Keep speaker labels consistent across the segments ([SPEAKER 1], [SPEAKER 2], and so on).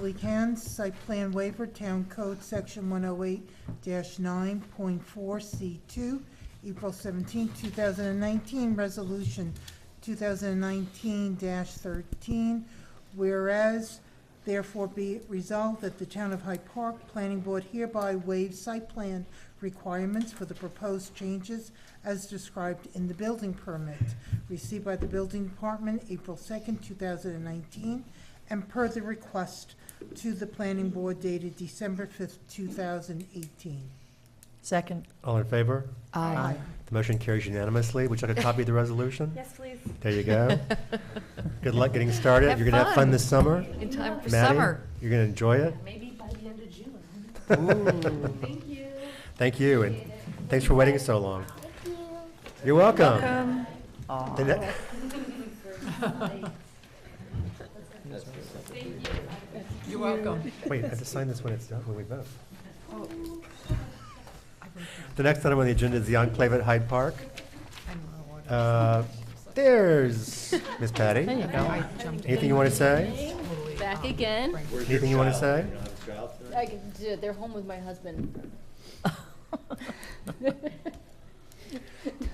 [SPEAKER 1] Billy Cannes, site plan waiver, Town Code, Section 108-9.4C2, April 17, 2019, Resolution 2019-13. Whereas, therefore be it resolved that the Town of Hyde Park Planning Board hereby waives site plan requirements for the proposed changes as described in the building permit received by the Building Department April 2nd, 2019, and per the request to the Planning Board dated December 5th, 2018.
[SPEAKER 2] Second.
[SPEAKER 3] All in favor?
[SPEAKER 2] Aye.
[SPEAKER 3] The motion carries unanimously. Would you like a copy of the resolution?
[SPEAKER 4] Yes, please.
[SPEAKER 3] There you go. Good luck getting started.
[SPEAKER 2] Have
[SPEAKER 3] You're gonna have fun
[SPEAKER 2] fun.
[SPEAKER 3] this summer.
[SPEAKER 2] In time for
[SPEAKER 3] Maddie,
[SPEAKER 2] summer.
[SPEAKER 3] You're gonna enjoy it.
[SPEAKER 4] Maybe by the end of June.
[SPEAKER 3] Thank you. Thank you, and thanks for waiting so long. You're welcome. The ne-
[SPEAKER 2] You're welcome.
[SPEAKER 3] Wait, I have to sign this when it's done, when we vote.
[SPEAKER 2] Oh.
[SPEAKER 3] The next item on the agenda is the Enclave at Hyde Park. Uh, There's Miss Patty.
[SPEAKER 2] There you go. I jumped
[SPEAKER 3] Anything you want to say?
[SPEAKER 2] totally
[SPEAKER 5] Back
[SPEAKER 2] off.
[SPEAKER 5] again.
[SPEAKER 3] Anything you want to say?
[SPEAKER 5] I can- d- They're home with my husband.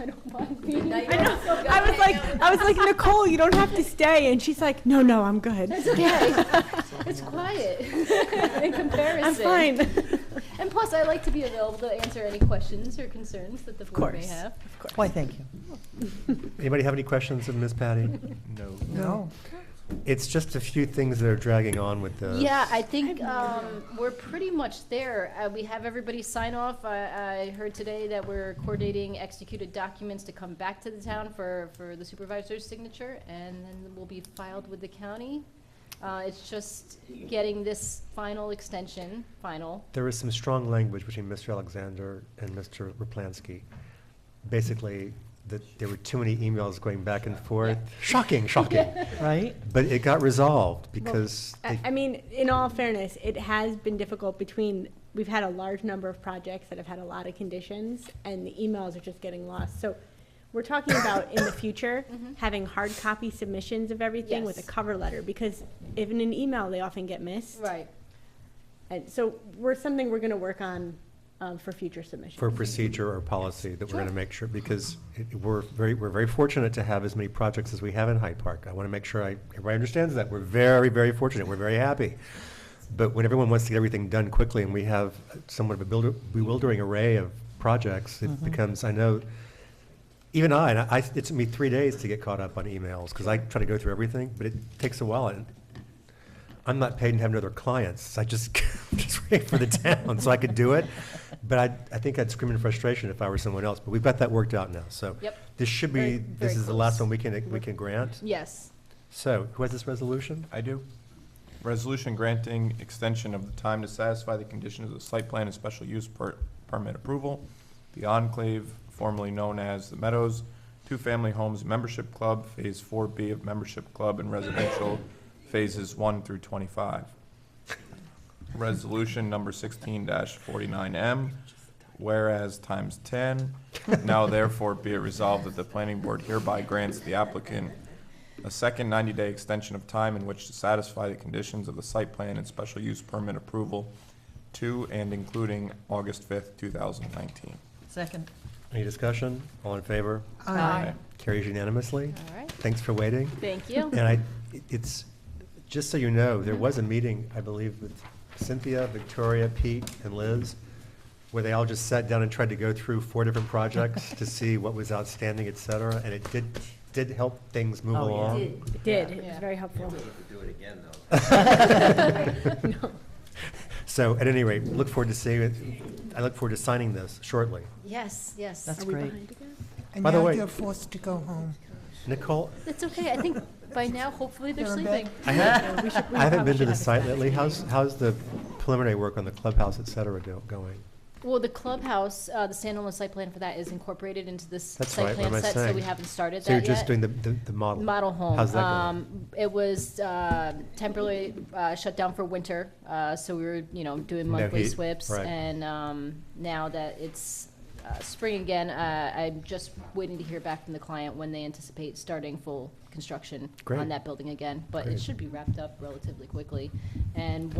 [SPEAKER 5] I don't mind being. I
[SPEAKER 6] I was like, I was like, Nicole, you don't have to stay. And she's like, no, no, I'm good.
[SPEAKER 5] It's okay. It's quiet in comparison.
[SPEAKER 6] I'm fine.
[SPEAKER 5] And plus, I like to be available to answer any questions or concerns that the board may
[SPEAKER 6] course.
[SPEAKER 5] have.
[SPEAKER 2] Why, thank you.
[SPEAKER 3] Anybody have any questions of Miss Patty? No.
[SPEAKER 2] No.
[SPEAKER 3] It's just a few things that are dragging on with the.
[SPEAKER 5] Yeah, I think um, we're pretty much there. Uh, We have everybody sign off. I I heard today that we're coordinating executed documents to come back to the town for, for the supervisor's signature, and then will be filed with the county. Uh, It's just getting this final extension, final.
[SPEAKER 3] There is some strong language between Mr. Alexander and Mr. Raplansky. Basically, that there were too many emails going back and forth. Shocking, shocking.
[SPEAKER 2] Right?
[SPEAKER 3] But it got resolved because
[SPEAKER 6] I,
[SPEAKER 3] they-
[SPEAKER 6] I mean, in all fairness, it has been difficult between, we've had a large number of projects that have had a lot of conditions and the emails are just getting lost. So we're talking about in the future, having hard copy submissions of everything with a
[SPEAKER 5] Yes.
[SPEAKER 6] cover letter because if in an email, they often get missed.
[SPEAKER 5] Right.
[SPEAKER 6] And so we're, something we're going to work on um, for future submissions.
[SPEAKER 3] for procedure or policy that we're going to
[SPEAKER 5] Sure.
[SPEAKER 3] make sure, because it- we're very, we're very fortunate to have as many projects as we have in Hyde Park. I want to make sure I, everybody understands that. We're very, very fortunate. We're very happy. But when everyone wants to get everything done quickly and we have somewhat of a builder- bewildering array of projects, it becomes, I know, even I, and I, it took me three days to get caught up on emails, because I try to go through everything, but it takes a while. and I'm not paid and have other clients, I just, just wait for the town, so I could do it. But I, I think I'd scream in frustration if I were someone else, but we've got that worked out now, so.
[SPEAKER 5] Yep.
[SPEAKER 3] This should be,
[SPEAKER 5] Very-
[SPEAKER 3] this
[SPEAKER 5] very
[SPEAKER 3] is the last
[SPEAKER 5] close.
[SPEAKER 3] one we can, we can grant.
[SPEAKER 5] Yes.
[SPEAKER 3] So, who has this resolution?
[SPEAKER 7] I do. Resolution granting extension of the time to satisfy the conditions of the site plan and special use per- permit approval. The Enclave, formerly known as the Meadows, Two Family Homes Membership Club, Phase Four B of Membership Club and Residential Phases One through Twenty-five. Resolution number sixteen forty-nine M, whereas times ten, now therefore be it resolved that the planning board hereby grants the applicant a second 90-day extension of time in which to satisfy the conditions of the site plan and special use permit approval to and including August 5th, 2019.
[SPEAKER 2] Second.
[SPEAKER 3] Any discussion? All in favor?
[SPEAKER 2] Aye.
[SPEAKER 3] Carries unanimously.
[SPEAKER 5] All right.
[SPEAKER 3] Thanks for waiting.
[SPEAKER 5] Thank you.
[SPEAKER 3] And I, it- it's, just so you know, there was a meeting, I believe, with Cynthia, Victoria, Pete, and Liz, where they all just sat down and tried to go through four different projects to see what was outstanding, et cetera, and it did, did help things move
[SPEAKER 2] Oh, yeah.
[SPEAKER 3] along.
[SPEAKER 6] It did. It was
[SPEAKER 5] Yeah.
[SPEAKER 6] very helpful.
[SPEAKER 3] So at any rate, look forward to seeing it, I look forward to signing this shortly.
[SPEAKER 5] Yes, yes.
[SPEAKER 2] That's great.
[SPEAKER 1] And
[SPEAKER 3] By the
[SPEAKER 1] now
[SPEAKER 3] way-
[SPEAKER 1] you're forced to go home.
[SPEAKER 3] Nicole,
[SPEAKER 5] It's okay. I think by now, hopefully, they're
[SPEAKER 1] They're in bed.
[SPEAKER 5] sleeping.
[SPEAKER 3] I
[SPEAKER 6] Yeah, we
[SPEAKER 3] haven't,
[SPEAKER 6] should- we
[SPEAKER 3] I haven't
[SPEAKER 6] probably
[SPEAKER 3] been to
[SPEAKER 6] should
[SPEAKER 3] the
[SPEAKER 6] have a
[SPEAKER 3] site
[SPEAKER 6] status
[SPEAKER 3] lately.
[SPEAKER 6] meeting.
[SPEAKER 3] How's, how's the preliminary work on the clubhouse, et cetera, do- going?
[SPEAKER 5] Well, the clubhouse, uh, the standalone site plan for that is incorporated into this
[SPEAKER 3] That's
[SPEAKER 5] site
[SPEAKER 3] right, what
[SPEAKER 5] plan
[SPEAKER 3] am I
[SPEAKER 5] set, so we
[SPEAKER 3] saying?
[SPEAKER 5] haven't started that
[SPEAKER 3] So
[SPEAKER 5] yet.
[SPEAKER 3] you're just doing the, the the model?
[SPEAKER 5] Model home.
[SPEAKER 3] How's that going?
[SPEAKER 5] Um, It was uh, temporarily uh, shut down for winter, uh, so we were, you know, doing
[SPEAKER 3] No
[SPEAKER 5] monthly
[SPEAKER 3] heat,
[SPEAKER 5] swips.
[SPEAKER 3] right.
[SPEAKER 5] And um, now that it's uh, spring again, uh, I'm just waiting to hear back from the client when they anticipate starting full construction
[SPEAKER 3] Great.
[SPEAKER 5] on that building again. But
[SPEAKER 3] Great.
[SPEAKER 5] it should be wrapped up relatively quickly. And